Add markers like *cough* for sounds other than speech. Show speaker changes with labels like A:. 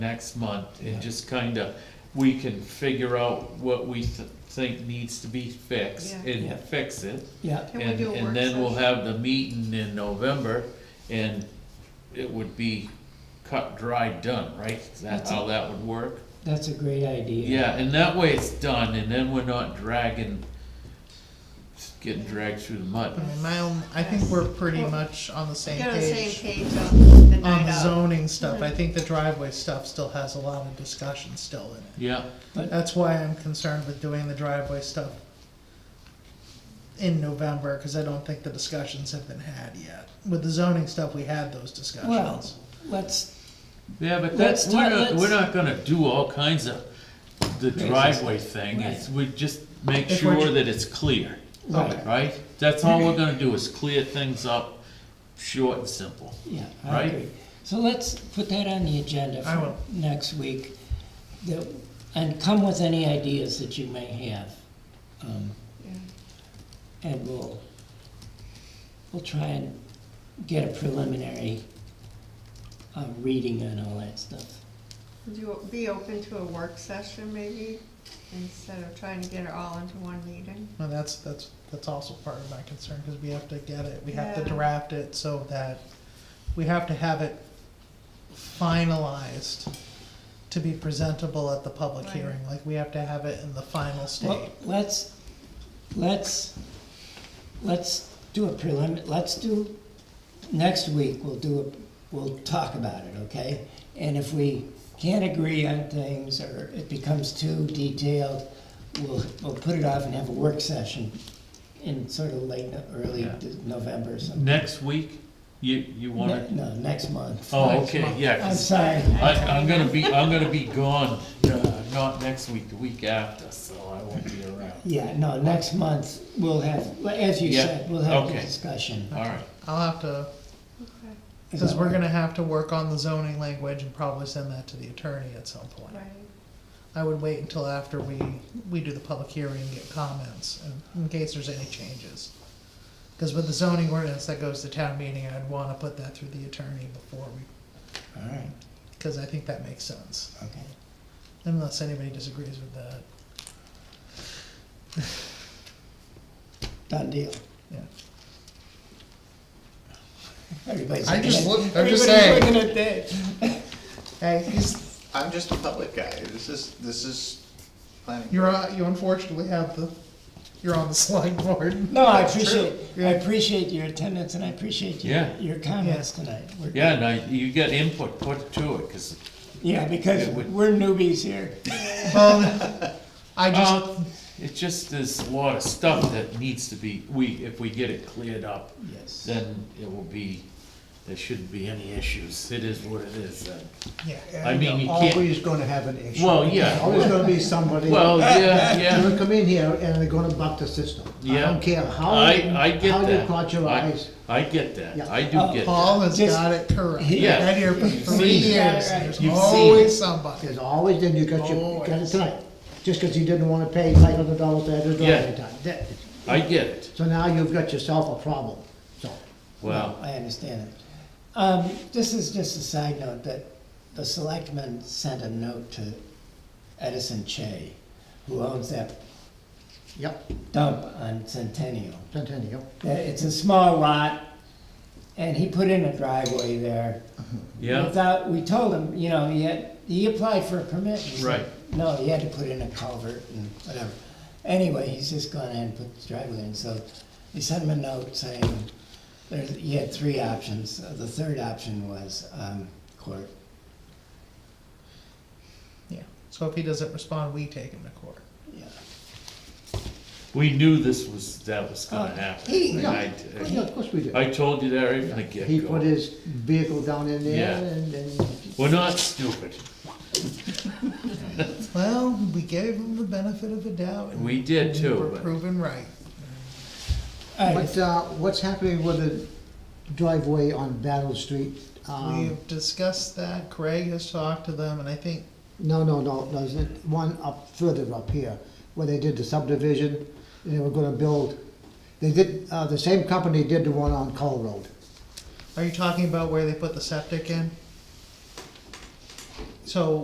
A: next month and just kinda, we can figure out what we th- think needs to be fixed
B: Yeah.
A: and
C: Yeah.
A: fix it.
C: Yeah,
B: Can we
A: And,
B: do a work
A: and then we'll
B: session?
A: have the meeting in November and it would be cut, dry, done, right? That's how that would work?
C: that's a great idea.
A: Yeah, and that way it's done and then we're not dragging, getting dragged through the
D: I
B: Mm-hmm.
A: mud.
D: mean, my own, I think we're pretty much on the same
B: Get on the same
D: page.
B: page on the
D: On
B: night
D: the
B: of.
D: zoning stuff, I think the driveway stuff still has a lot of discussion still in it.
A: Yeah,
B: Mm.
D: That's why I'm concerned with doing the driveway stuff in November, cause I don't think the discussions have been had yet. With the zoning stuff, we had those
C: Well,
D: discussions.
C: let's,
A: yeah, but
C: Let's
A: that's, we're
C: not-
A: not,
C: let's-
A: we're not gonna do all kinds of the driveway thing.
C: Right.
A: It's, we just make
D: If we're
A: sure
D: ju-
A: that it's clear.
C: right,
A: right? That's all we're gonna do is clear things up, short and simple.
C: yeah, I
A: Right.
C: agree. So let's put that on the agenda
D: I
C: for
D: will.
C: next week. that- And come with any ideas that you may have. um,
B: Yeah.
C: And we'll, we'll try and get a preliminary uh, reading on all that stuff.
B: Would you be open to a work session maybe, instead of trying to get it all into one meeting?
D: Well, that's, that's, that's also part of my concern, cause we have to get it, we have to
B: Yeah.
D: draft it so that, we have to have it finalized to be presentable at the public
B: Right.
D: hearing, like, we have to have it in the final
C: Well,
D: state.
C: let's, let's, let's do a prelim, let's do, next week, we'll do, a we'll talk about it, okay? And if we can't agree on things, or it becomes too detailed, we'll, we'll put it off and have a work session in sort of late, no- early
A: Yeah.
C: de- November or something.
A: Next week, you, you
C: No,
A: wanna,
C: no, next month.
A: oh, okay, yeah,
C: I'm
A: 'cause
C: sorry,
A: I, I'm gonna be, I'm gonna be gone, uh, not next week, the week after, so I won't be around.
C: yeah, no, next month, we'll have, well, as you
A: Yeah,
C: said, we'll have the
A: okay.
C: discussion.
A: All right,
D: I'll have to
B: Okay,
D: Because we're gonna have to work on the zoning language and probably send that to the attorney at some point.
B: right.
D: I would wait until after we, we do the public hearing and get comments, in, in case there's any changes. Because with the zoning ordinance that goes to town meeting, I'd wanna put that through the attorney before we,
C: All right,
D: because I think that makes sense,
C: okay.
D: unless anybody disagrees with that.
C: Done deal.
D: Yeah.
C: Everybody's.
E: I just
C: looking
E: look,
C: at-
E: I'm just
C: everybody's
E: saying,
C: Looking at that.
D: *laughs* Hey,
E: I'm just a public guy, this is, this is planning.
D: you're, on- you unfortunately have the, you're on the slide board.
C: No, I
E: That's true.
C: appreciate, I
D: Yeah.
C: appreciate your attendance and I appreciate your,
A: Yeah.
C: your comments tonight. We're-
A: yeah, now, you got input, put it to it, 'cause,
C: Yeah, because
A: Yeah, we-
C: we're newbies here.
D: Um, I just,
A: uh, it's just, there's a lot of stuff that needs to be, we, if we get it cleared up,
C: Yes.
A: then it will be, there shouldn't be any issues, it is what it is then.
D: yeah,
A: I mean, you can't-
F: Always gonna have an issue.
A: Well, yeah.
F: Always gonna be somebody,
A: Well,
F: they're
A: yeah, yeah.
F: gonna come in here and they're gonna buck the system. I
A: Yeah.
F: don't care how,
A: I, I
F: you-
A: get
F: how
A: that.
F: you caught your
A: I-
F: eyes.
A: I get that,
F: Yeah.
A: I do
C: Uh,
A: get that.
D: Paul has
C: Just-
D: got it correct.
A: Yeah.
D: I've been here for three
A: seen it.
D: years, and there's
A: You've seen
D: always somebody.
F: There's always, then you got your, you got it
D: Always.
F: tonight, just 'cause you didn't wanna pay five hundred dollars to have your
A: Yeah.
F: driveway done. That-
A: I get it,
F: So now you've got yourself a problem, so.
A: well.
C: I understand it. Um, this is just a side note that the selectman sent a note to Edison Che, who owns that
F: Yep,
C: dump on Centennial.
F: Centennial,
C: that it's a small lot, and he put in a driveway there.
A: Yeah,
C: Without, we told him, you know, he had, he applied for a permit. He said,
A: Right.
C: No, he had to put in a culvert and whatever. Anyway, he's just gone ahead and put the driveway in, so we sent him a note saying, there's, he had three options. Uh, The third option was, um, court.
D: Yeah. So if he doesn't respond, we take him to court.
C: Yeah.
A: we knew this was, that was gonna
F: Uh,
C: Oh,
A: happen.
F: he-
A: and
F: yeah.
A: I-
F: Well, yeah, of course we do.
A: I told you that right from the
F: He put
A: get-go.
F: his vehicle down in there
A: Yeah.
F: and, and
A: We're not stupid,
D: Well, we gave him the benefit of the doubt. and
A: we did
D: we were
A: too, but
D: proven right.
C: All right,
F: But uh, what's happening with the driveway on Battle Street? Um,
D: We've discussed that. Craig has talked to them, and I think
F: No, no, no, there's one up further up here, where they did the subdivision, and they were gonna build, they did, uh, the same company did the one on Call Road.
D: are you talking about where they put the septic in? So